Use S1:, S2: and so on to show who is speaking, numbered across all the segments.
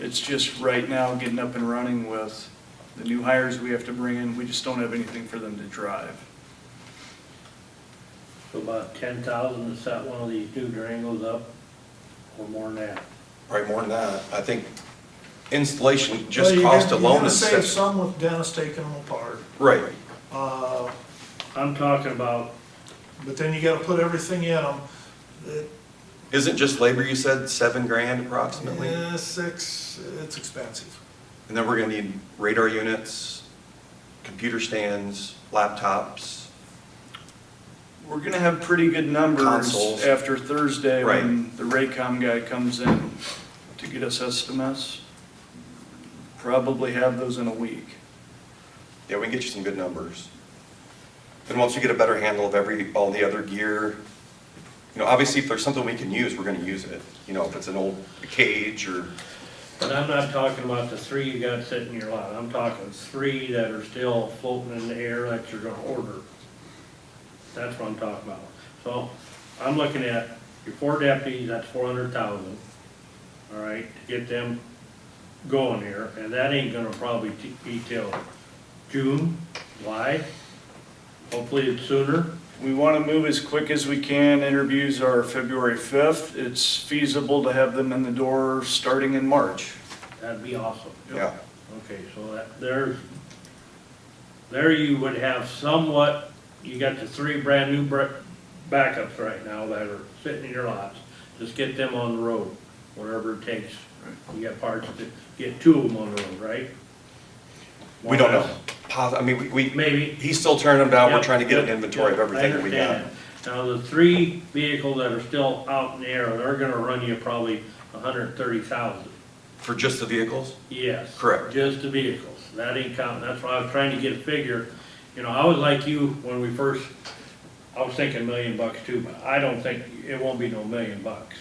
S1: It's just right now getting up and running with the new hires we have to bring in. We just don't have anything for them to drive.
S2: So about ten thousand to set one of these two Durangos up, or more than that.
S3: Probably more than that. I think installation
S4: Well,
S3: just
S4: you're
S3: cost
S4: gonna- you're
S3: alone
S4: gonna
S3: is.
S4: Save some with Dennis taking them apart,
S3: Right,
S4: uh,
S2: I'm talking about,
S4: but then you gotta put everything in them.
S3: isn't just labor, you said, seven grand approximately?
S4: Yeah, Uh, six, it's expensive.
S3: And then we're gonna need radar units, computer stands, laptops.
S1: We're gonna have pretty good numbers
S3: Consoles.
S1: after Thursday when the Raycom guy comes in to get us estimates. Probably have those in a week.
S3: Yeah, we can get you some good numbers. And once we get a better handle of every, all the other gear, you know, obviously if there's something we can use, we're gonna use it. You know, if it's an old cage or,
S2: but I'm not talking about the three you got sitting in your lot, I'm talking three that are still floating in the air that you're gonna order. That's what I'm talking about. So, I'm looking at your four deputies, that's four hundred thousand, all right, to get them going here, and that ain't gonna probably t- be till June, July, hopefully it's sooner.
S1: We want to move as quick as we can. Interviews are February 5th. It's feasible to have them in the door starting in March.
S2: That'd be awesome.
S3: yeah.
S2: Okay, so that, there's, there you would have somewhat, you got the three brand-new bra- backups right now that are sitting in your lots. Just get them on the road, whatever it takes. You got parts to, get two of them on the road, right?
S3: We don't know. Pos- I mean, we, we,
S2: Maybe.
S3: he's still turning them down. We're
S2: Yep,
S3: trying to get an
S2: yep,
S3: inventory of
S2: yep, I
S3: everything that we got.
S2: understand. Now, the three vehicles that are still out in the air, they're gonna run you probably a hundred and thirty thousand.
S3: For just the vehicles?
S2: Yes.
S3: Correct.
S2: Just the vehicles, that ain't counting, that's why I was trying to get a figure, you know, I was like you when we first, I was thinking million bucks too, but I don't think, it won't be no million bucks.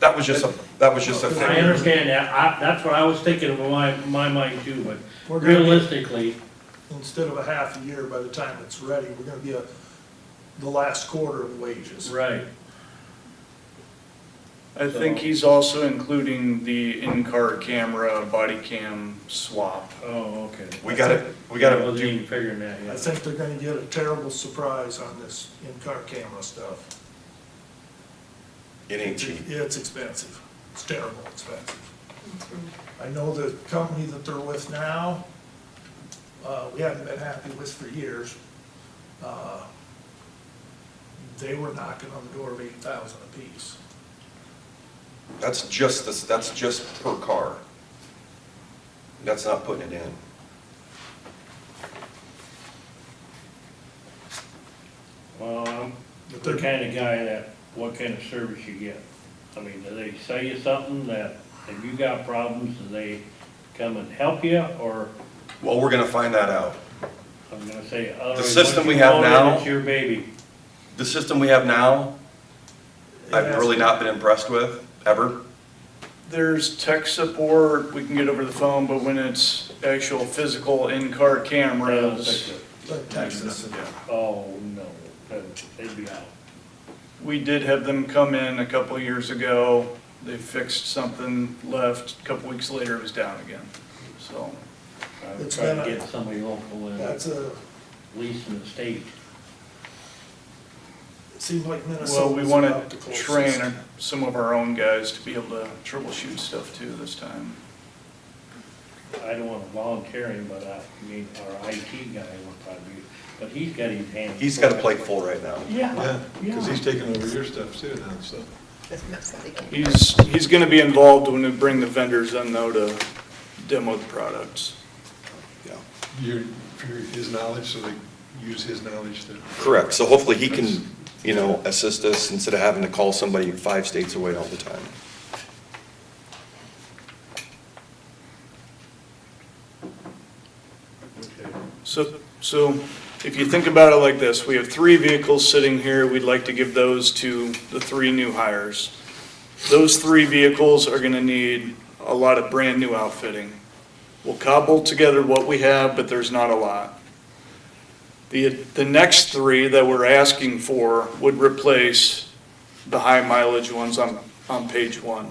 S3: That was just a, that was just a
S2: I
S3: thing.
S2: understand that, I, that's what I was thinking in my, my mind too,
S4: We're
S2: but
S4: gonna be-
S2: realistically,
S4: Instead of a half a year, by the time it's ready, we're gonna be a, the last quarter of wages.
S2: right,
S1: I think
S2: So-
S1: he's also including the in-car camera, body cam swap.
S2: oh, okay.
S3: We gotta, we gotta
S2: Wasn't
S3: do,
S2: even figuring that
S4: I
S2: yet.
S4: think they're gonna get a terrible surprise on this in-car camera stuff.
S3: it ain't cheap.
S4: Yeah, it's expensive. It's terrible expensive. I know the company that they're with now, uh, we haven't been happy with for years. Uh, They were knocking on the door of eight thousand apiece.
S3: That's just this, that's just per car. That's not putting it in.
S2: Well, I'm
S4: But
S2: the
S4: they're-
S2: kind of guy that, what kind of service you get? I mean, do they sell you something that, if you got problems, do they come and help you, or,
S3: Well, we're gonna find that out.
S2: I'm gonna say, otherwise.
S3: system
S2: once
S3: we
S2: you
S3: have
S2: own it,
S3: now-
S2: It's your baby.
S3: The system we have now,
S4: It
S3: I've
S4: has-
S3: really not been impressed with, ever.
S1: There's tech support, we can get over the phone, but when it's actual physical in-car cameras,
S4: But Texas,
S2: Oh, no, that- they'd be out.
S1: we did have them come in a couple of years ago. They fixed something, left, a couple weeks later it was down again. So
S2: I would
S4: It's
S2: try to
S4: been a-
S2: get somebody local and
S4: that's a,
S2: lease in the state.
S4: it seems like Minnesota.
S1: Well, we
S4: was about
S1: want
S4: the
S1: to
S4: closest.
S1: train our- some of our own guys to be able to troubleshoot stuff too this time.
S2: I don't wanna volunteer him, but I mean, our IT guy would probably, be- but he's got his hands.
S3: He's got a plate full right now.
S2: Yeah,
S5: Yeah, because
S2: yeah.
S5: he's taking over your stuff too now, so.
S1: He's, he's going to be involved when we bring the vendors in though to demo the products.
S3: Yeah.
S5: Your, for his knowledge, so they use his knowledge to.
S3: Correct. So hopefully he can, you know, assist us instead of having to call somebody five states away all the time.
S5: Okay.
S1: So, so if you think about it like this, we have three vehicles sitting here, we'd like to give those to the three new hires. Those three vehicles are gonna need a lot of brand-new outfitting. We'll cobble together what we have, but there's not a lot. The, the next three that we're asking for would replace the high mileage ones on, on page one.